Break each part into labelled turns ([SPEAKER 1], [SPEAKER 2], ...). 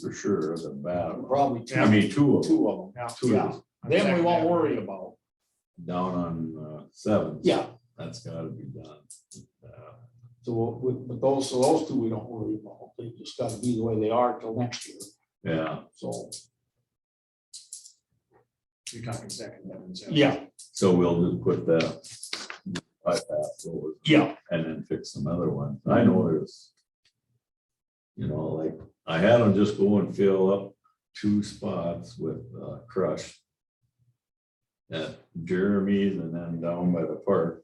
[SPEAKER 1] for sure, the bad.
[SPEAKER 2] probably two,
[SPEAKER 1] I mean, two of them,
[SPEAKER 2] two of them.
[SPEAKER 1] two of them,
[SPEAKER 2] Then we won't worry about,
[SPEAKER 1] down on uh, seven.
[SPEAKER 2] yeah,
[SPEAKER 1] That's gotta be done. Uh,
[SPEAKER 2] so we, but those, so those two we don't worry about, they just gotta be the way they are till next year,
[SPEAKER 1] Yeah,
[SPEAKER 2] so,
[SPEAKER 3] You're talking second heaven. so-
[SPEAKER 2] yeah,
[SPEAKER 1] so we'll just put that bypass over
[SPEAKER 2] yeah,
[SPEAKER 1] and then fix some other ones. I know there's. You know, like, I had them just go and fill up two spots with uh, crush. At Jeremy's and then down by the park.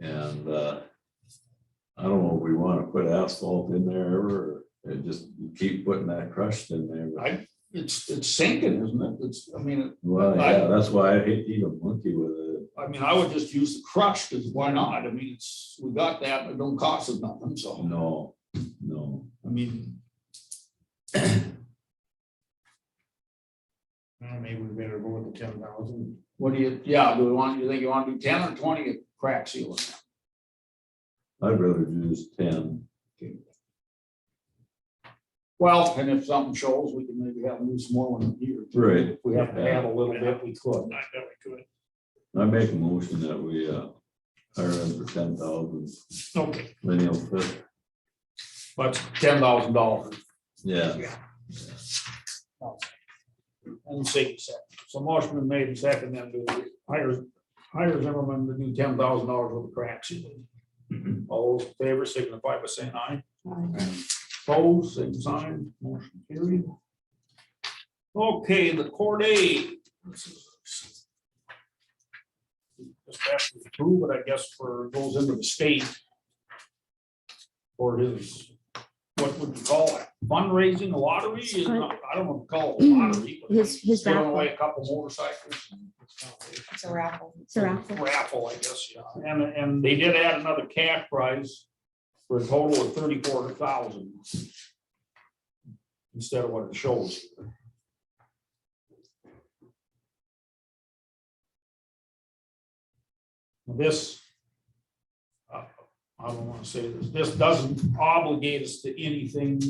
[SPEAKER 1] And uh. I don't know, if we wanna put asphalt in there ever, or just keep putting that crushed in there. but-
[SPEAKER 2] I- it's, it's sinking, isn't it? It's, I mean,
[SPEAKER 1] Well,
[SPEAKER 2] I-
[SPEAKER 1] yeah, that's why I hate to even monkey with it.
[SPEAKER 2] I mean, I would just use the crush, cause why not? I mean, it's, we got that, but it don't cost us nothing, so,
[SPEAKER 1] No, no.
[SPEAKER 2] I mean,
[SPEAKER 3] Well, Maybe we better go with the ten thousand.
[SPEAKER 2] what do you, yeah, do we want, you think you wanna do ten or twenty at crack sealing?
[SPEAKER 1] I'd rather use ten.
[SPEAKER 2] Well, and if something shows, we can maybe have them do some more one here. too.
[SPEAKER 1] Right.
[SPEAKER 2] If we have to add a little bit, we could.
[SPEAKER 3] I bet we could.
[SPEAKER 1] I make a motion that we uh hire him for ten thousand
[SPEAKER 3] Okay,
[SPEAKER 1] lineal foot.
[SPEAKER 2] But ten thousand dollars.
[SPEAKER 1] Yeah,
[SPEAKER 3] and see, so
[SPEAKER 2] So motion been made and second then to hire, hire Zimmerman to do ten thousand dollars with the crack ceiling. All those in favor signify by saying aye. Opposed, same sign, motion carried. Okay, the court aid. Just have to approve, but I guess for goes into the state. Or his, what would you call it, fundraising, lottery? It's not- I don't want to call it a lottery. but
[SPEAKER 4] mm, His- his
[SPEAKER 2] Giving
[SPEAKER 4] raffle.
[SPEAKER 2] away a couple motorcycles. and it's kind of a-
[SPEAKER 5] It's a raffle.
[SPEAKER 4] It's a raffle.
[SPEAKER 2] Raffle, Mm, I guess, yeah. And, and they did add another cash prize for a total of thirty-four thousand. Instead of what it shows. This. uh, I don't wanna say this, this doesn't obligate us to anything.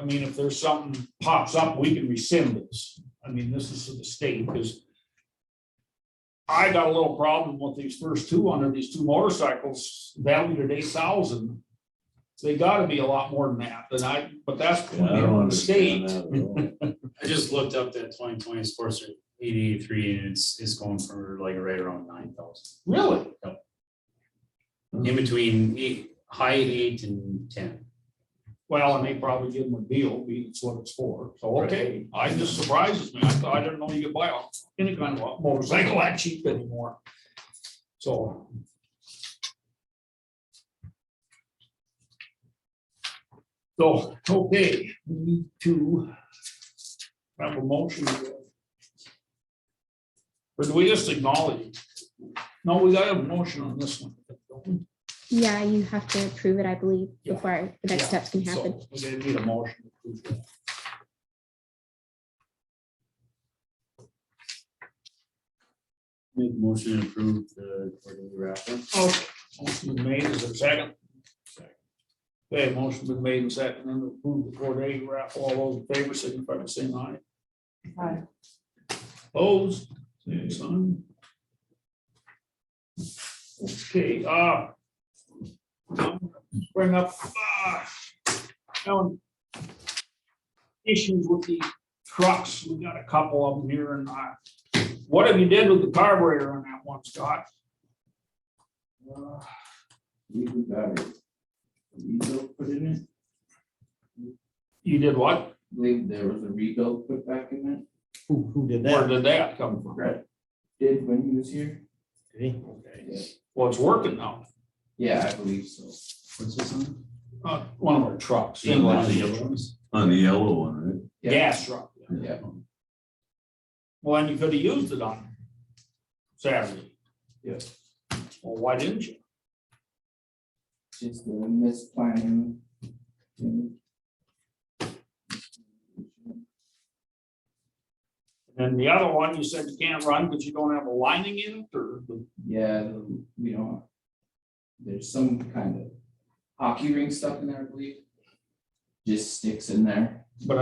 [SPEAKER 2] I mean, if there's something pops up, we can rescind this. I mean, this is to the state, because I got a little problem with these first two under these two motorcycles valued at eight thousand. They gotta be a lot more than that, than I, but that's
[SPEAKER 1] yeah, I don't
[SPEAKER 2] the
[SPEAKER 1] understand
[SPEAKER 2] state.
[SPEAKER 1] that at all.
[SPEAKER 6] I just looked up that twenty twenty sports eighty-three and it's, it's going for like right around nine thousand.
[SPEAKER 2] Really?
[SPEAKER 6] In between eight, high eight and ten.
[SPEAKER 2] Well, and they probably give them a deal, be it's what it's for, so, okay, I just surprises me, I thought, I didn't know you could buy a- any kind of a motorcycle that cheap anymore. So. So, okay, we need to have a motion. Or do we just acknowledge? it? No, we gotta have a motion on this one. don't we?
[SPEAKER 4] Yeah, you have to approve it, I believe,
[SPEAKER 2] Yeah.
[SPEAKER 4] before the next
[SPEAKER 2] Yeah.
[SPEAKER 4] steps can happen.
[SPEAKER 2] So we need a motion. to approve that.
[SPEAKER 6] Make motion to approve the quarterly raffle.
[SPEAKER 2] Okay, Oh, motion been made, is there a second? Okay, motion been made and second, and approve the court aid raffle, all those in favor, signify by saying aye.
[SPEAKER 5] Aye.
[SPEAKER 2] Opposed, same sign. Okay, uh. now Bring up, uh, Ellen, Issues with the trucks, we got a couple of them here and I, what have you did with the carburetor on that one, Scott? Uh,
[SPEAKER 7] rebuild put in it.
[SPEAKER 2] You did what?
[SPEAKER 7] I believe there was a rebuild put back in it.
[SPEAKER 3] who, who did
[SPEAKER 2] Where
[SPEAKER 3] that?
[SPEAKER 2] did that come from?
[SPEAKER 7] Brett did when he was here.
[SPEAKER 3] Okay.
[SPEAKER 2] Well, it's working now,
[SPEAKER 7] Yeah, I believe so.
[SPEAKER 6] What's this on?
[SPEAKER 2] uh, one of our trucks,
[SPEAKER 1] Yeah, one of
[SPEAKER 6] The
[SPEAKER 1] the
[SPEAKER 6] yellow ones?
[SPEAKER 1] On the yellow one,
[SPEAKER 2] gas truck.
[SPEAKER 1] right?
[SPEAKER 7] Yeah.
[SPEAKER 2] Well, and you could have used it on Saturday.
[SPEAKER 7] Yeah.
[SPEAKER 2] Well, why didn't you?
[SPEAKER 7] Just the misplanning.
[SPEAKER 2] And the other one, you said you can't run because you don't have a lining in it or the
[SPEAKER 7] Yeah, the- we don't. There's some kind of hockey ring stuff in there, I believe. Just sticks in there.